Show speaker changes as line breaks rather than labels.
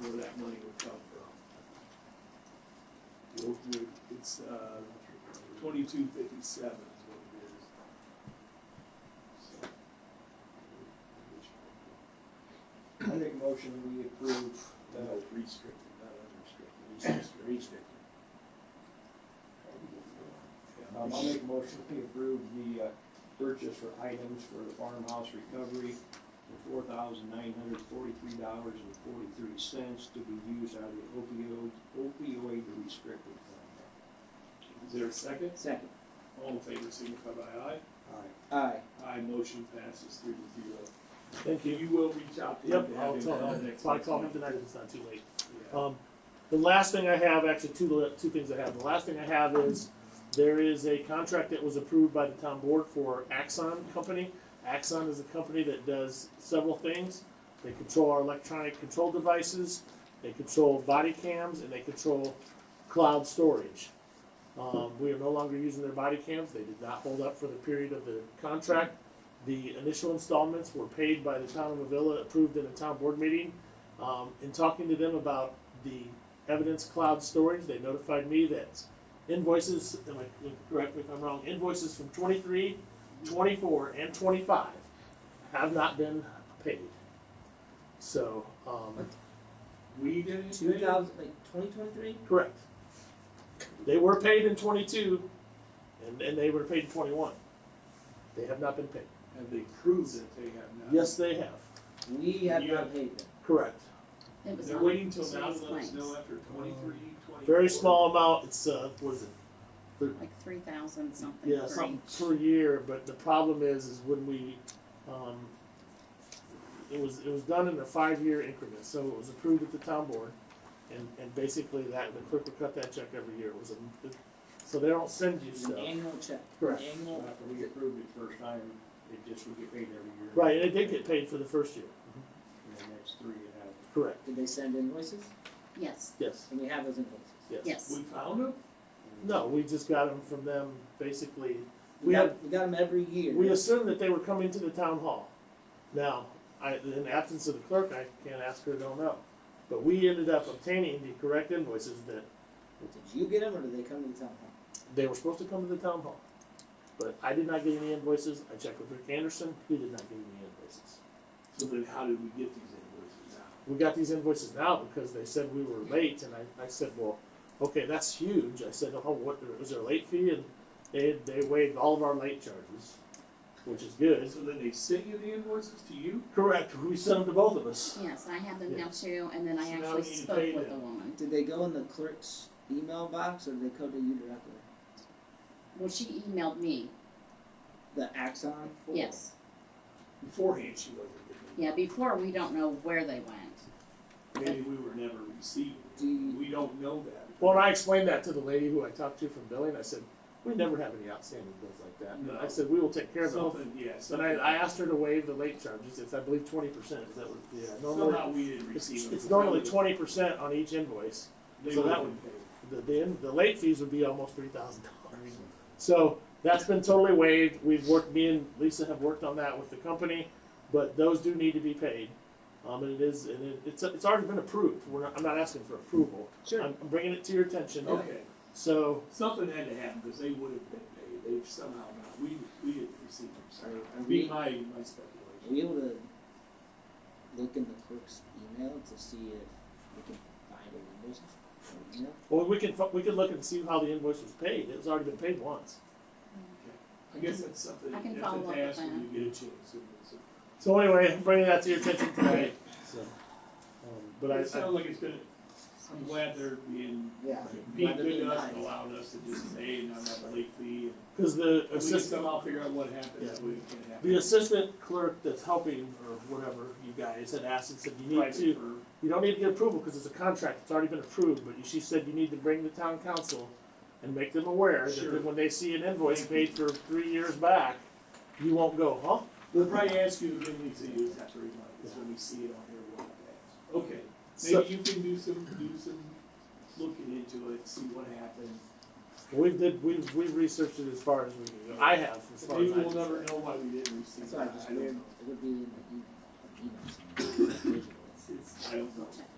where that money would come from. You'll- you'll- It's, uh, twenty-two fifty-seven is what it is. So,
I make a motion that we approve the, um,
No, restricted, not unrestricted, restricted. Restricted. Yeah.
um, I'll make a motion that we approve the, uh, purchase for items for the farmhouse recovery for four thousand nine hundred forty-three dollars and forty-three cents to be used out of the opioid, opioid restricted fund.
Is there a second?
Second.
All in favor, signify by aye.
All right.
Aye.
Aye, motion passes three to zero.
Thank you.
You will reach out to him.
Yep,
to have
I'll
him
tell
come
him,
next
so I
week.
call him tonight if it's not too late.
Yeah.
Um, the last thing I have, actually, two, two things I have. The last thing I have is there is a contract that was approved by the town board for Axon Company. Axon is a company that does several things. They control our electronic control devices, they control body cams, and they control cloud storage. Um, we are no longer using their body cams. They did not hold up for the period of the contract. The initial installments were paid by the town of Avila, approved in a town board meeting. Um, in talking to them about the evidence cloud storage, they notified me that invoices, am I, correct me if I'm wrong, invoices from 23, 24, and twenty-five have not been paid. So, um,
We did it.
Two thousand, like twenty twenty-three?
correct. They were paid in twenty-two, and, and they were paid in twenty-one. They have not been paid.
Have they proved that they have not?
Yes, they have,
We have
You
not
have-
paid them.
correct.
It was
They're
on
waiting till now
today's
to let us
claims,
know after twenty-three, twenty-four.
Very small amount, it's, uh, what is it? Thir-
like three thousand something
Yeah,
for
something
each.
per year, but the problem is, is when we, um, it was, it was done in a five-year increment, so it was approved at the town board, and, and basically that, the clerk would cut that check every year, it was a, it- so they don't send you
It's an
uh,
stuff.
annual check.
Correct.
Annual.
After we approved it first time, it just would get paid every year.
Right, and it did get paid for the first year,
And then that's three and a half.
correct,
Did they send invoices?
Yes,
yes,
And we have those invoices.
yes.
yes.
We found them?
No, we just got them from them, basically,
We
we have,
got, we got them every year.
We assumed that they were coming to the town hall. Now, I, in the absence of the clerk, I can't ask her, don't know. But we ended up obtaining the correct invoices that
Did you get them or did they come to the town hall?
they were supposed to come to the town hall. But I did not get any invoices. I checked with Rick Anderson, he did not get any invoices.
So then how did we get these invoices now?
We got these invoices now because they said we were late, and I, I said, well, okay, that's huge. I said, oh, what, was there a late fee? And they, they waived all of our late charges, which is good.
So then they sent you the invoices to you?
Correct, we sent them to both of us.
Yes, I have them now
Yeah.
too, and then I
So now
actually
we need to
spoke
pay
with the
them.
woman.
Did they go in the clerk's email box or did they go to you directly?
Well, she emailed me,
The Axon?
yes.
Beforehand, she wasn't getting
Yeah, before, we don't know where they went.
them. Maybe we were never received.
Do you-
We don't know that.
Well, and I explained that to the lady who I talked to from billing. I said, we never have any outstanding bills like that.
No.
I said, we will take care of them.
Something, yeah,
And
something.
I, I asked her to waive the late charges. It's, I believe, twenty percent. Is that what, yeah, normally,
Somehow we didn't
it's,
receive them.
it's normally twenty percent on each invoice.
They
so that
wouldn't pay.
The, the, in- the late fees would be almost three thousand dollars. So that's been totally waived. We've worked, me and Lisa have worked on that with the company, but those do need to be paid. Um, and it is, and it, it's, it's already been approved. We're not, I'm not asking for approval.
Sure.
I'm I'm bringing it to your attention.
Okay,
So,
something had to happen because they would have been paid. They've somehow not, we, we didn't receive them, sorry.
Are- are
Be
we-
my, my
Are we
speculation.
able to look in the clerk's email to see if we can find an invoice or email?
Well, we could, we could look and see how the invoice was paid, it was already been paid once.
I guess that's something,
I
that's
can
a
follow up with
task when
them.
you get a chance. and it's a-
So anyway, I'm bringing that to your attention tonight, so, um, but
It
I,
sounds
I,
like it's been, I'm glad they're being,
Yeah.
being
Rather
good
than
to us and
nice.
allowing us to just say and not have a late fee.
cause the
And we can
assistant,
somehow figure out what happened, that we can have.
the assistant clerk that's helping, or whatever, you guys had asked and said, you need
private
to,
for-
you don't need to get approval, cause it's a contract, it's already been approved, but she said you need to bring the town council and make them aware that
Sure.
when they see an invoice paid for three years back, you won't go, huh?
They'll probably ask you again, we say, you just have to remind us when we see it on here, we'll have to ask. Okay,
So-
maybe you can do some, do some looking into it, see what happened.
We've did, we've, we've researched it as far as we can go. I have, as far
Maybe
as I
we'll
can.
never know why we didn't receive
That's
it,
why I
I
just
don't
weird,
know.
it would be in e, the email, an email somewhere.
It's, I don't know.
Check